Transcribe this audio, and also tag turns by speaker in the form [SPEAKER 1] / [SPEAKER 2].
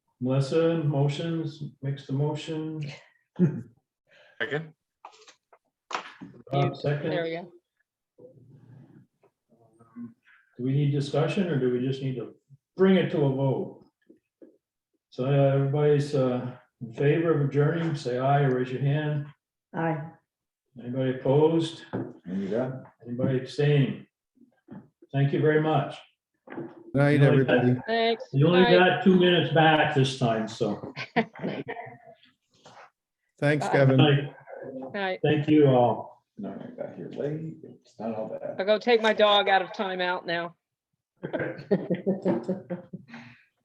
[SPEAKER 1] Melissa, motions, makes the motion,
[SPEAKER 2] Second,
[SPEAKER 1] Bob
[SPEAKER 3] There
[SPEAKER 1] second.
[SPEAKER 3] we go.
[SPEAKER 1] Do we need discussion or do we just need to bring it to a vote? So uh, everybody's uh, in favor of adjourning, say aye, or raise your hand.
[SPEAKER 4] Aye.
[SPEAKER 1] Anybody opposed?
[SPEAKER 5] And you got.
[SPEAKER 1] Anybody abstaining? Thank you very much.
[SPEAKER 6] Night,
[SPEAKER 1] Night.
[SPEAKER 6] everybody.
[SPEAKER 3] Thanks.
[SPEAKER 1] You only
[SPEAKER 3] Aye.
[SPEAKER 1] got two minutes back this time, so
[SPEAKER 6] Thanks,
[SPEAKER 3] Bye.
[SPEAKER 6] Kevin.
[SPEAKER 1] thank-
[SPEAKER 3] Night.
[SPEAKER 1] thank you all.
[SPEAKER 5] No, I got here late. It's not all bad.
[SPEAKER 3] I'll go take my dog out of timeout now.